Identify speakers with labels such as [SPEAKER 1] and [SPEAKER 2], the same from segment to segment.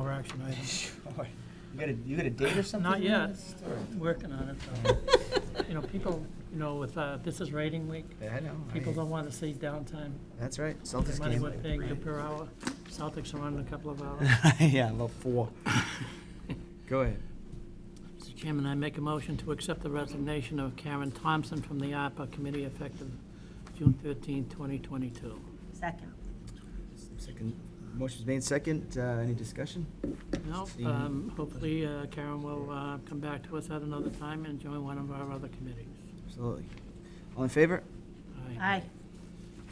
[SPEAKER 1] action item.
[SPEAKER 2] You got a, you got a date or something?
[SPEAKER 1] Not yet,
[SPEAKER 2] Or-
[SPEAKER 1] working on it. though. You know, people, you know, with, uh, this is rating week,
[SPEAKER 2] Yeah, I know. I-
[SPEAKER 1] people don't want to see downtime.
[SPEAKER 2] That's right, Celtics
[SPEAKER 1] Money
[SPEAKER 2] game.
[SPEAKER 1] we're paying you per hour. Celtics are on in a couple of hours.
[SPEAKER 2] Yeah, about four. Go ahead.
[SPEAKER 1] Mr. Chairman, I make a motion to accept the resignation of Karen Thompson from the ARPA Committee effective June 13, 2022.
[SPEAKER 3] Second.
[SPEAKER 2] Second, motion's made second, uh, any discussion?
[SPEAKER 1] No, um, hopefully uh, Karen will uh, come back to us at another time and join one of our other committees.
[SPEAKER 2] Absolutely. All in favor?
[SPEAKER 3] Aye.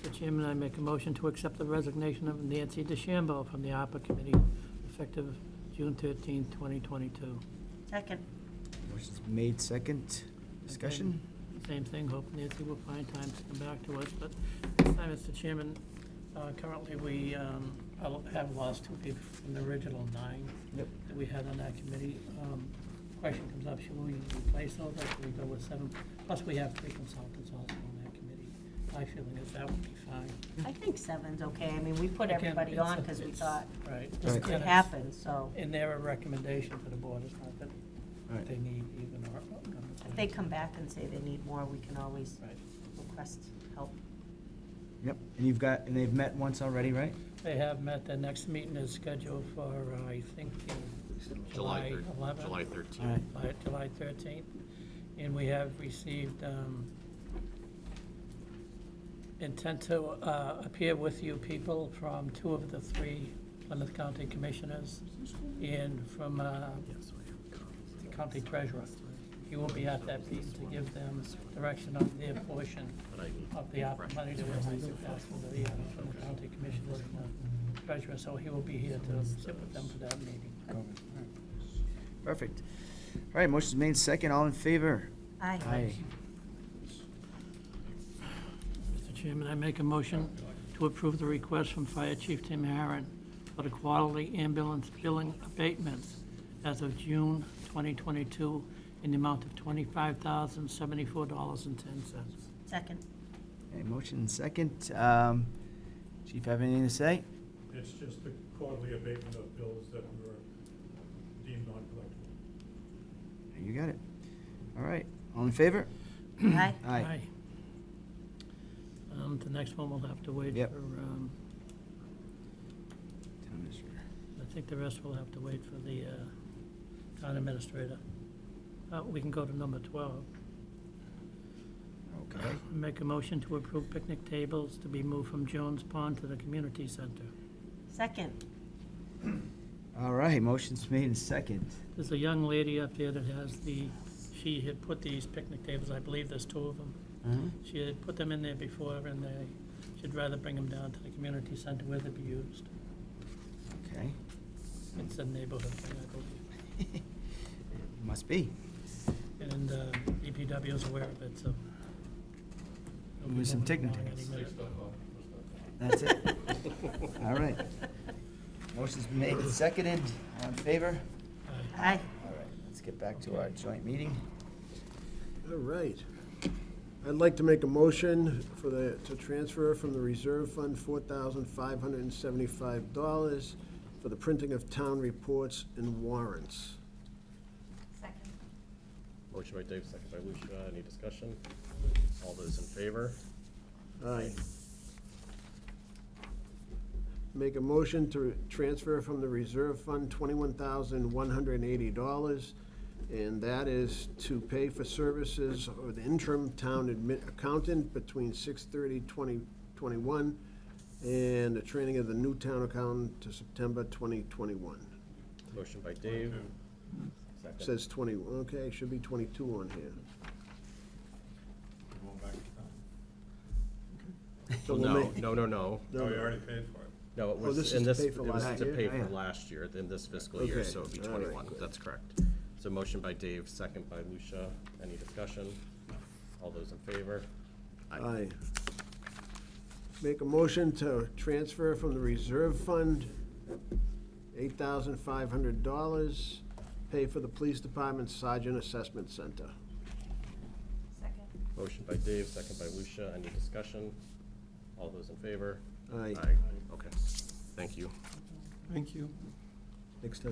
[SPEAKER 1] Mr. Chairman, I make a motion to accept the resignation of Nancy DeChambeau from the ARPA Committee effective June 13, 2022.
[SPEAKER 3] Second.
[SPEAKER 2] Motion's made second, discussion?
[SPEAKER 1] Same thing, hope Nancy will find time to come back to us, but this time, Mr. Chairman, uh, currently, we um, have lost two people from the original nine
[SPEAKER 2] Yep.
[SPEAKER 1] that we had on that committee. Um, Question comes up, should we replace those, or should we go with seven? Plus, we have three consultants also on that committee. My feeling is that would be fine.
[SPEAKER 3] I think seven's okay. I mean, we put
[SPEAKER 1] Again,
[SPEAKER 3] everybody
[SPEAKER 1] it's
[SPEAKER 3] on
[SPEAKER 1] a-
[SPEAKER 3] because we
[SPEAKER 1] it's-
[SPEAKER 3] thought
[SPEAKER 1] Right.
[SPEAKER 2] Right.
[SPEAKER 3] it could happen, so
[SPEAKER 1] And they're a recommendation to the board, it's not that
[SPEAKER 2] All right.
[SPEAKER 1] they need even our.
[SPEAKER 3] if they come back and say they need more, we can always
[SPEAKER 1] Right.
[SPEAKER 3] request help.
[SPEAKER 2] Yep, and you've got, and they've met once already, right?
[SPEAKER 1] They have met, the next meeting is scheduled for, uh, I think, in July
[SPEAKER 4] July
[SPEAKER 1] 11th.
[SPEAKER 4] thir- July
[SPEAKER 2] All right.
[SPEAKER 4] 13th.
[SPEAKER 1] July- July 13th, and we have received um, intent to uh, appear with you people from two of the three Plymouth County Commissioners and from uh, the county treasurer. You will be at that meeting to give them direction on their portion of the op- money that was passed to the uh, Plymouth County Commissioners and the treasurer, so he will be here to sit with them for that meeting.
[SPEAKER 2] Perfect. All right, motion's made second, all in favor?
[SPEAKER 3] Aye.
[SPEAKER 1] Mr. Chairman, I make a motion to approve the request from Fire Chief Tim Harron for the quality ambulance billing abatements as of June 2022 in the amount of $25,074.10.
[SPEAKER 3] Second.
[SPEAKER 2] Okay, motion second, um, chief have anything to say?
[SPEAKER 5] It's just the quarterly abatement of bills that were deemed non-collectible.
[SPEAKER 2] You got it. All right, all in favor?
[SPEAKER 3] Aye.
[SPEAKER 2] Aye.
[SPEAKER 1] Um, The next one will have to wait for,
[SPEAKER 2] Yep.
[SPEAKER 1] um,
[SPEAKER 2] Town administrator.
[SPEAKER 1] I think the rest will have to wait for the uh, town administrator. Uh, We can go to number 12.
[SPEAKER 2] Okay,
[SPEAKER 1] Make a motion to approve picnic tables to be moved from Jones Pond to the community center.
[SPEAKER 3] Second.
[SPEAKER 2] all right, motion's made in second.
[SPEAKER 1] There's a young lady up there that has the, she had put these picnic tables, I believe there's two of them. She had put them in there before and they, she'd rather bring them down to the community center where they'd be used.
[SPEAKER 2] Okay,
[SPEAKER 1] It's a neighborhood thing, I believe.
[SPEAKER 2] must be.
[SPEAKER 1] And uh, DPW is aware of it, so. it'll be
[SPEAKER 2] With some
[SPEAKER 1] moving
[SPEAKER 2] picnic
[SPEAKER 1] along any minute.
[SPEAKER 2] tables. That's it. All right. Motion's been made and seconded. All in favor?
[SPEAKER 1] Aye.
[SPEAKER 3] Aye.
[SPEAKER 2] All right, let's get back to our joint meeting.
[SPEAKER 6] All right. I'd like to make a motion for the, to transfer from the reserve fund four thousand five hundred and seventy-five dollars for the printing of town reports and warrants.
[SPEAKER 3] Second.
[SPEAKER 4] Motion by Dave, second by Lucia. Any discussion? All those in favor?
[SPEAKER 6] Aye. Make a motion to transfer from the reserve fund twenty-one thousand one hundred and eighty dollars, and that is to pay for services of the interim town admin, accountant between six thirty twenty twenty-one and the training of the new town accountant to September twenty twenty-one.
[SPEAKER 4] Motion by Dave. Second.
[SPEAKER 6] Says twenty, okay, should be twenty-two on here.
[SPEAKER 5] Going back to
[SPEAKER 6] So
[SPEAKER 4] Well,
[SPEAKER 6] we'll
[SPEAKER 4] Oh, no,
[SPEAKER 6] make-
[SPEAKER 4] no, no, no.
[SPEAKER 5] town.
[SPEAKER 6] No,
[SPEAKER 5] Oh, you
[SPEAKER 6] no.
[SPEAKER 5] already paid for it.
[SPEAKER 4] No, it was,
[SPEAKER 6] this is
[SPEAKER 4] in
[SPEAKER 6] to
[SPEAKER 4] this,
[SPEAKER 6] pay
[SPEAKER 4] it
[SPEAKER 6] for
[SPEAKER 4] was
[SPEAKER 6] last
[SPEAKER 4] to
[SPEAKER 6] year?
[SPEAKER 4] pay
[SPEAKER 2] Oh, yeah.
[SPEAKER 4] for last year, in this fiscal year,
[SPEAKER 6] Okay,
[SPEAKER 4] so it'd be
[SPEAKER 6] all right.
[SPEAKER 4] twenty-one. That's correct. So motion by Dave, second by Lucia. Any discussion? All those in favor?
[SPEAKER 6] Aye. Make a motion to transfer from the reserve fund, eight thousand five hundred dollars, pay for the police department sergeant assessment center.
[SPEAKER 4] Motion by Dave, second by Lucia. Any discussion? All those in favor?
[SPEAKER 6] Aye.
[SPEAKER 4] Okay. Thank you.
[SPEAKER 6] Next time